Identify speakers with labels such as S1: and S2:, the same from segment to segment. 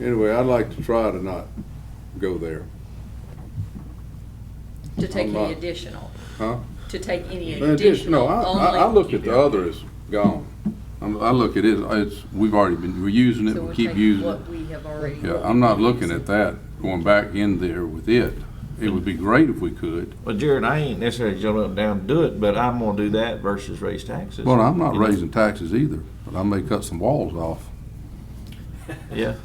S1: Anyway, I'd like to try to not go there,
S2: To take
S1: I'm not-
S2: any additional,
S1: huh?
S2: to take any
S1: In addition- No,
S2: additional,
S1: I, I, I
S2: only.
S1: look at the other as gone. I'm, I look at it, it's, we've already been, we're using it,
S2: So
S1: we
S2: we're
S1: keep
S2: taking
S1: using it.
S2: What we have already.
S1: Yeah, I'm not looking at that, going back in there with it. It would be great if we could.
S3: Well, Jared, I ain't necessarily jumping up and down to do it, but I'm gonna do that versus raise taxes.
S1: Well, I'm not
S3: You know?
S1: raising taxes either, but I may cut some walls off.
S3: Yeah,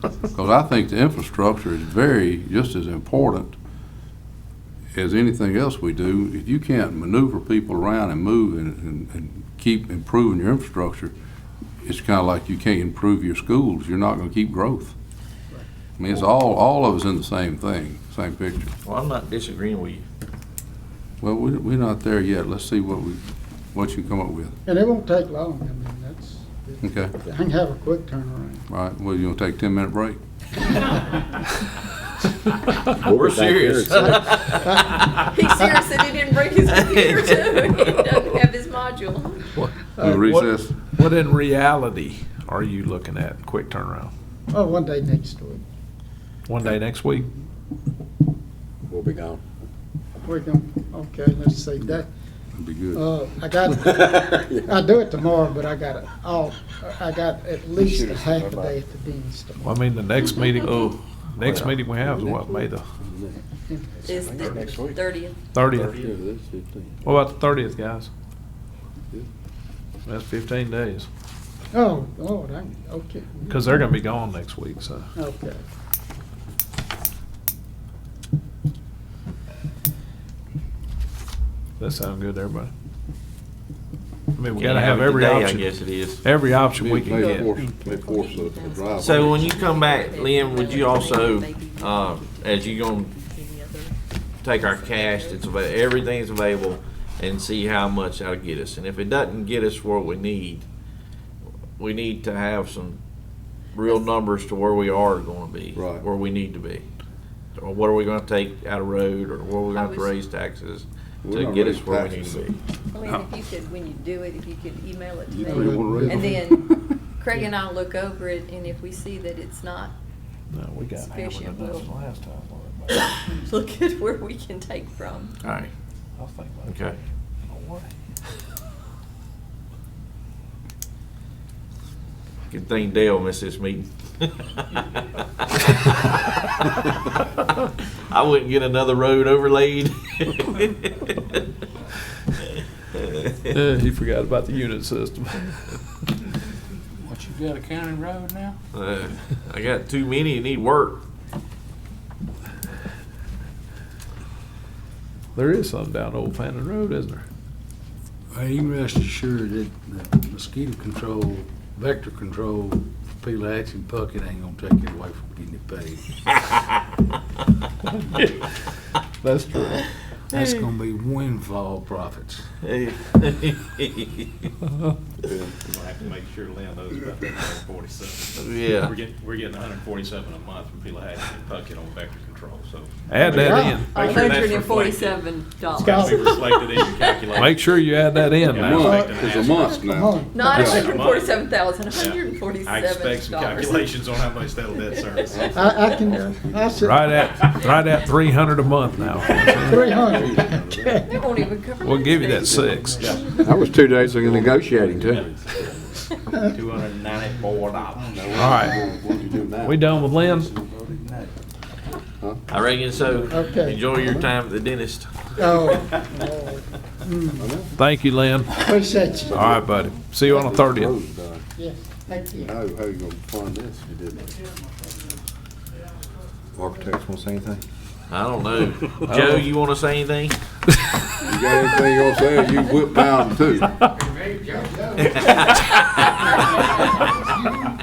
S1: Because I think the infrastructure is very, just as important as anything else we do. If you can't maneuver people around and move and, and, and keep improving your infrastructure, it's kind of like you can't improve your schools. You're not going to keep growth. I mean, it's all, all of us in the same thing, same picture.
S3: well, I'm not disagreeing with you.
S1: Well, we, we're not there yet. Let's see what we, what you come up with.
S4: And it won't take long, I mean, that's,
S1: Okay,
S4: I can have a quick turnaround.
S1: all right. Well, you want to take a ten-minute break?
S3: We're serious.
S2: He's serious that he didn't bring his computer too, he doesn't have his module.
S4: Uh,
S1: We'll
S5: what-
S1: recess.
S5: What in reality are you looking at? Quick turnaround.
S4: Oh, one day next week,
S5: One day next week?
S6: We'll be gone.
S4: we're going, okay, let's see, that,
S1: That'd be good.
S4: uh, I got, I do it tomorrow, but I got it all, I got at least a half a day at the Dean's tomorrow.
S5: Well, I mean, the next meeting, oh, next meeting we have is what, May the
S2: Is
S6: next
S2: the
S6: week.
S2: thirtieth,
S5: thirtieth?
S6: Fifteen.
S5: What about the thirtieth, guys? That's fifteen days,
S4: Oh, Lord, I'm, okay,
S5: because they're gonna be gone next week, so.
S4: okay.
S5: That sound good to everybody? I mean, we
S3: Can't
S5: gotta have every
S3: today,
S5: option.
S3: I guess it is.
S5: Every option we can
S1: May
S5: get.
S1: force- may force the- the driveway.
S3: So when you come back, Lynn, would you also, uh, as you gonna
S2: any other?
S3: take our cash that's available, everything's available, and see how much that'll get us. And if it doesn't get us what we need, we need to have some real numbers to where we are gonna be.
S1: Right.
S3: Where we need to be. Or what are we gonna take out of road, or where we're gonna have to
S2: I was-
S3: raise taxes
S1: We're
S3: to
S1: not
S3: get us
S1: raising
S3: where we need
S1: taxes.
S3: to be.
S2: I mean, if you could, when you do it, if you could email it to
S1: You
S2: me.
S1: three wanna raise
S2: And
S1: them?
S2: then Craig and I'll look over it, and if we see that it's not,
S5: No, we got hammered
S2: Sufficient
S5: enough
S2: will.
S5: last time. wasn't it?
S2: look at where we can take from.
S3: All right,
S5: I think about it.
S3: okay.
S5: Don't worry.
S3: Good thing Dale missed this meeting. I wouldn't get another road overlaid.
S5: Yeah, he forgot about the unit system.
S6: What, you got a county road now?
S3: Uh, I got too many that need work.
S5: There is some down Old Fannin Road, isn't there?
S7: Well, you can rest assured that the mosquito control, vector control, Peleax and Puckett ain't gonna take it away from getting it paid.
S5: That's true.
S7: That's gonna be windfall profits.
S8: We'll have to make sure Lynn knows about that hundred and forty-seven.
S3: Yeah.
S8: We're getting, we're getting hundred and forty-seven a month from Peleac and Puckett on vector control, so.
S5: Add that in.
S8: Make sure
S2: hundred and
S8: that's reflected.
S2: forty-seven
S8: It'll
S2: dollars.
S4: got-
S8: be reflected in your calculation.
S5: Make sure you add that in.
S1: A
S5: man.
S8: Yeah, I
S1: month,
S8: expect an
S1: it's a
S8: answer.
S1: month
S4: Come
S1: now.
S4: on.
S2: Not
S1: Yeah.
S2: hundred and forty-seven thousand,
S8: Yeah.
S2: hundred and
S8: I expect
S2: forty-seven
S8: some
S2: dollars.
S8: calculations on how much that'll debt service.
S4: I, I can, uh, I said.
S5: Right at, right at three hundred a month now.
S4: Three hundred, okay.
S2: They won't even cover.
S5: We'll give you that
S2: those
S5: six.
S6: That was two days of negotiating too.
S8: Two hundred and ninety-four dollars.
S5: All right. We done with Lynn?
S3: I reckon so.
S4: Okay.
S3: Enjoy your time at the dentist.
S4: Oh,
S5: Thank you, Lynn.
S4: appreciate you,
S5: All right, buddy. See you on the thirtieth.
S4: yes, thank you.
S1: uh, How, how you gonna fund this? You didn't.
S6: Architects want to say anything?
S3: I don't know. Joe, you want to say anything?
S1: You got anything you gonna say? You whip down too.
S9: I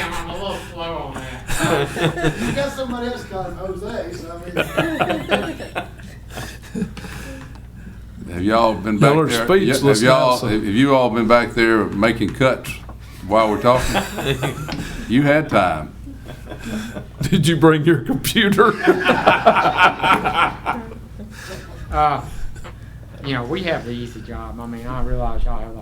S9: am. I'm a little slow on that.
S4: You got somebody else called Jose, so I mean.
S1: Have y'all been back
S5: Y'all are
S1: there? yeah,
S5: speechless
S1: Have y'all,
S5: now, so-
S1: have you all been back there making cuts while we're talking? You had time.
S5: Did you bring your computer?
S9: Uh, you know, we have the easy job. I mean, I realize y'all have the